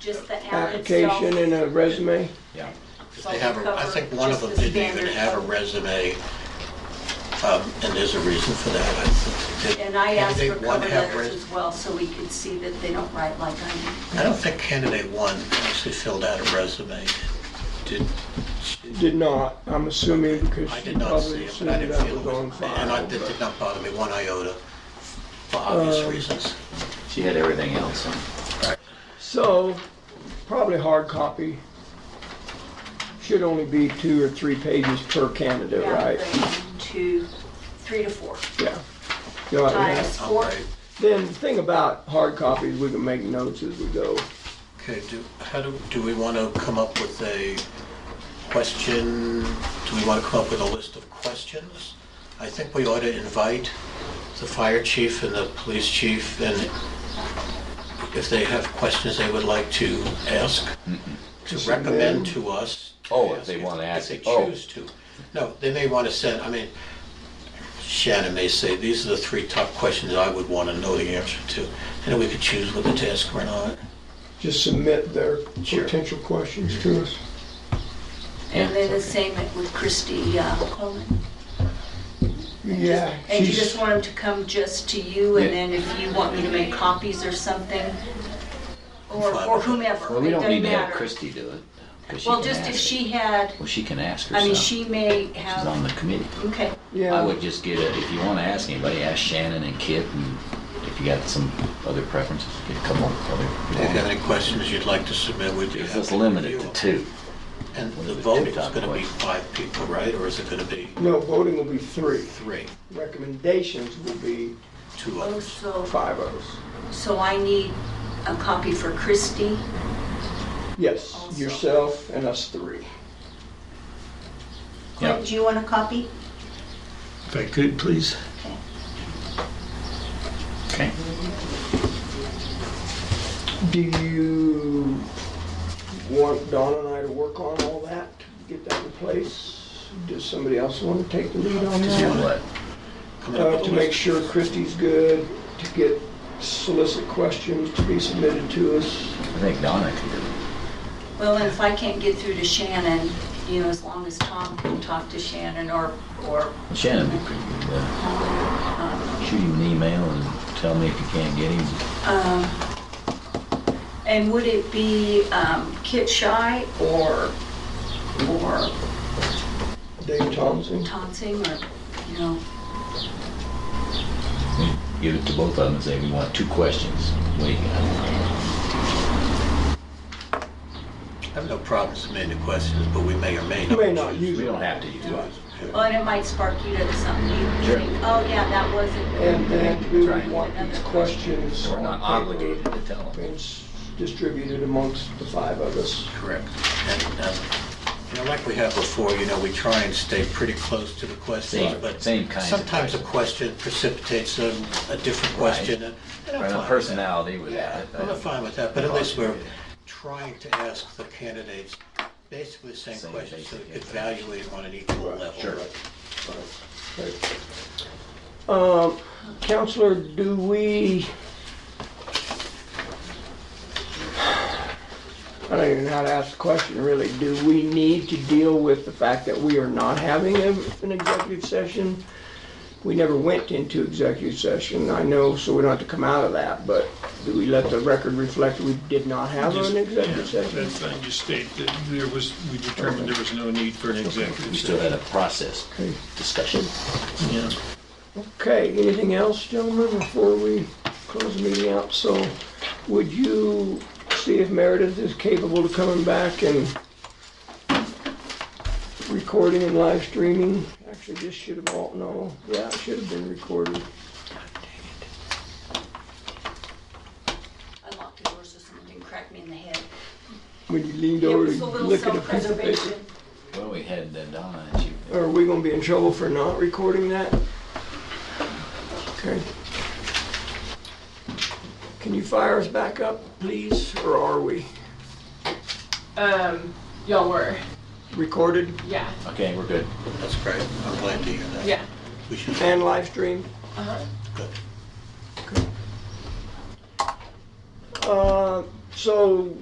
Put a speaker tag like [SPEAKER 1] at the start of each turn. [SPEAKER 1] just the ad itself.
[SPEAKER 2] application and a resume?
[SPEAKER 3] Yeah.
[SPEAKER 1] so
[SPEAKER 4] They have, a- I
[SPEAKER 1] cover
[SPEAKER 4] think one of
[SPEAKER 1] just
[SPEAKER 4] them
[SPEAKER 1] the
[SPEAKER 4] didn't even
[SPEAKER 1] standard
[SPEAKER 4] have a
[SPEAKER 1] of-
[SPEAKER 4] resume, um, and there's a reason for that. I think they-
[SPEAKER 1] And I asked for
[SPEAKER 4] candidate one
[SPEAKER 1] cover
[SPEAKER 4] have
[SPEAKER 1] letters
[SPEAKER 4] res-
[SPEAKER 1] as well, so we could see that they don't write like I do.
[SPEAKER 4] I don't think candidate one actually filled out a resume. Did,
[SPEAKER 2] Did not, I'm assuming because
[SPEAKER 4] I
[SPEAKER 2] she
[SPEAKER 4] did not
[SPEAKER 2] probably
[SPEAKER 4] see it, but I
[SPEAKER 2] assumed
[SPEAKER 4] didn't
[SPEAKER 2] that
[SPEAKER 4] feel
[SPEAKER 2] was
[SPEAKER 4] it was,
[SPEAKER 2] on
[SPEAKER 4] and I-
[SPEAKER 2] file.
[SPEAKER 4] that
[SPEAKER 2] but-
[SPEAKER 4] did not bother me one iota, for obvious
[SPEAKER 2] Um,
[SPEAKER 4] reasons.
[SPEAKER 3] She had everything else on.
[SPEAKER 2] So, probably hard copy. Should only be two or three pages per candidate,
[SPEAKER 1] Yeah,
[SPEAKER 2] right?
[SPEAKER 1] they- Two, three to four
[SPEAKER 2] Yeah. You'll
[SPEAKER 4] Oh,
[SPEAKER 2] have that.
[SPEAKER 1] times
[SPEAKER 4] All
[SPEAKER 1] four.
[SPEAKER 4] right.
[SPEAKER 2] Then the thing about hard copies, we can make notes as we go.
[SPEAKER 4] Okay, do, how do, do we want to come up with a question? Do we want to come up with a list of questions? I think we ought to invite the fire chief and the police chief, and if they have questions they would like to ask, to recommend to us. to
[SPEAKER 3] Mm-hmm. Oh, if they wanna ask
[SPEAKER 4] If
[SPEAKER 3] it.
[SPEAKER 4] they
[SPEAKER 3] Oh.
[SPEAKER 4] choose to. No, they may want to send, I mean, Shannon may say, these are the three top questions I would want to know the answer to, and we could choose whether to ask or not.
[SPEAKER 2] Just submit their
[SPEAKER 4] Sure.
[SPEAKER 2] potential questions to us.
[SPEAKER 1] And then the same with Christie uh, Coleman.
[SPEAKER 2] Yeah.
[SPEAKER 1] And you
[SPEAKER 2] she's-
[SPEAKER 1] just want them to come just to you, and
[SPEAKER 3] Yeah.
[SPEAKER 1] then if you want me to make copies or something, or
[SPEAKER 4] Fine.
[SPEAKER 1] or whomever,
[SPEAKER 3] Well,
[SPEAKER 1] it
[SPEAKER 3] we don't
[SPEAKER 1] doesn't
[SPEAKER 3] need to have
[SPEAKER 1] matter.
[SPEAKER 3] Christie do it. 'cause she
[SPEAKER 1] Well,
[SPEAKER 3] can
[SPEAKER 1] just if
[SPEAKER 3] ask
[SPEAKER 1] she
[SPEAKER 3] it.
[SPEAKER 1] had,
[SPEAKER 3] Well, she can ask herself.
[SPEAKER 1] I mean, she may
[SPEAKER 3] She's on the
[SPEAKER 1] have,
[SPEAKER 3] committee.
[SPEAKER 1] okay,
[SPEAKER 3] I
[SPEAKER 2] Yeah,
[SPEAKER 3] would just get a, if you want to ask anybody, ask Shannon and Kit, and if you got some other preferences, get a couple of
[SPEAKER 4] If you have
[SPEAKER 3] other.
[SPEAKER 4] any questions you'd like to submit, we'd be happy
[SPEAKER 3] It's
[SPEAKER 4] to
[SPEAKER 3] just limited to
[SPEAKER 4] review
[SPEAKER 3] two.
[SPEAKER 4] them. And the
[SPEAKER 3] Limited to
[SPEAKER 4] vote
[SPEAKER 3] two
[SPEAKER 4] is
[SPEAKER 3] top
[SPEAKER 4] gonna be
[SPEAKER 3] questions.
[SPEAKER 4] five people, right, or is it gonna be
[SPEAKER 2] no, voting will be three.
[SPEAKER 4] three,
[SPEAKER 2] Recommendations will be
[SPEAKER 4] two
[SPEAKER 2] Uh,
[SPEAKER 1] oh,
[SPEAKER 4] others?
[SPEAKER 1] so,
[SPEAKER 2] five of us.
[SPEAKER 1] so I need a copy for Christie.
[SPEAKER 2] Yes,
[SPEAKER 1] Also.
[SPEAKER 2] yourself and us three.
[SPEAKER 3] Yep.
[SPEAKER 1] Clint, do you want a copy?
[SPEAKER 4] If I could, please.
[SPEAKER 3] Okay.
[SPEAKER 2] Do you want Don and I to work on all that, get that in place? Does somebody else want to take the lead on
[SPEAKER 3] Just do
[SPEAKER 2] that?
[SPEAKER 3] what?
[SPEAKER 4] Coming up
[SPEAKER 2] Uh,
[SPEAKER 4] with
[SPEAKER 2] to
[SPEAKER 4] a
[SPEAKER 2] make
[SPEAKER 4] list.
[SPEAKER 2] sure Christie's good, to get solicit questions to be submitted to us.
[SPEAKER 3] I think Donna could do it.
[SPEAKER 1] Well, and if I can't get through to Shannon, you know, as long as Tom can talk to Shannon or, or,
[SPEAKER 3] Shannon would be pretty good. at that. Shoot him an email and tell me if you can't get him.
[SPEAKER 1] um, and would it be um, Kit Shy or, or
[SPEAKER 2] Dave Thompson,
[SPEAKER 1] Tonsing or, you know,
[SPEAKER 3] Give it to both of them and say, we want two questions. What do you got?
[SPEAKER 4] I have no problem submitting the questions, but we may or may not.
[SPEAKER 2] may not
[SPEAKER 4] choose.
[SPEAKER 2] use
[SPEAKER 3] We
[SPEAKER 2] it.
[SPEAKER 3] don't have to use it.
[SPEAKER 1] well, and it might spark you to something, you
[SPEAKER 3] Sure.
[SPEAKER 1] think, oh, yeah, that wasn't.
[SPEAKER 2] And then we
[SPEAKER 3] Right.
[SPEAKER 2] would want these questions
[SPEAKER 3] We're not
[SPEAKER 2] on paper
[SPEAKER 3] obligated to tell them.
[SPEAKER 2] and s- distributed amongst the five of us.
[SPEAKER 4] Correct. And, um, you know, like we have before, you know, we try and stay pretty close to the questions,
[SPEAKER 3] Same-
[SPEAKER 4] but
[SPEAKER 3] same kinds of
[SPEAKER 4] sometimes a
[SPEAKER 3] questions.
[SPEAKER 4] question precipitates a, a different question. and- and I'm
[SPEAKER 3] Right,
[SPEAKER 4] fine
[SPEAKER 3] the
[SPEAKER 4] with that.
[SPEAKER 3] personality would
[SPEAKER 4] Yeah,
[SPEAKER 3] have it.
[SPEAKER 4] I'm not fine with that, but at least we're
[SPEAKER 3] Yeah.
[SPEAKER 4] trying to ask the candidates basically the same
[SPEAKER 3] Same
[SPEAKER 4] questions so we
[SPEAKER 3] basic
[SPEAKER 4] could
[SPEAKER 3] information.
[SPEAKER 4] evaluate on an equal
[SPEAKER 2] Right,
[SPEAKER 4] level.
[SPEAKER 3] sure.
[SPEAKER 2] Right. Um, Counselor, do we? I don't even know how to ask the question, really. Do we need to deal with the fact that we are not having a- an executive session? We never went into executive session, I know, so we don't have to come out of that, but do we let the record reflect we did not have
[SPEAKER 5] Just-
[SPEAKER 2] an executive
[SPEAKER 5] yeah,
[SPEAKER 2] session?
[SPEAKER 5] That's fine, just state that there was, we determined there was no need for an
[SPEAKER 3] We
[SPEAKER 5] executive
[SPEAKER 3] still
[SPEAKER 5] session.
[SPEAKER 3] had a process
[SPEAKER 2] Okay.
[SPEAKER 3] discussion.
[SPEAKER 5] Yeah.
[SPEAKER 2] Okay, anything else, gentlemen, before we close the meeting out? So would you see if Meredith is capable of coming back and recording and live streaming? Actually, this should have all, no, yeah, it should have been recorded.
[SPEAKER 1] I locked the door so someone didn't crack me in the head.
[SPEAKER 2] When you leaned
[SPEAKER 1] It
[SPEAKER 2] over
[SPEAKER 1] was a
[SPEAKER 2] to
[SPEAKER 1] little
[SPEAKER 2] look at a piece of paper.
[SPEAKER 1] self-preservation.
[SPEAKER 3] Well, we had uh, Donna and she,
[SPEAKER 2] Are we gonna be in trouble for not recording that? Okay. Can you fire us back up, please, or are we
[SPEAKER 6] Um, y'all were,
[SPEAKER 2] recorded
[SPEAKER 6] yeah,
[SPEAKER 3] okay, we're good.
[SPEAKER 4] That's great. I'm glad to hear that.
[SPEAKER 6] yeah.
[SPEAKER 4] We should,
[SPEAKER 2] and live streamed?
[SPEAKER 6] Uh-huh.
[SPEAKER 4] good.
[SPEAKER 2] Uh, so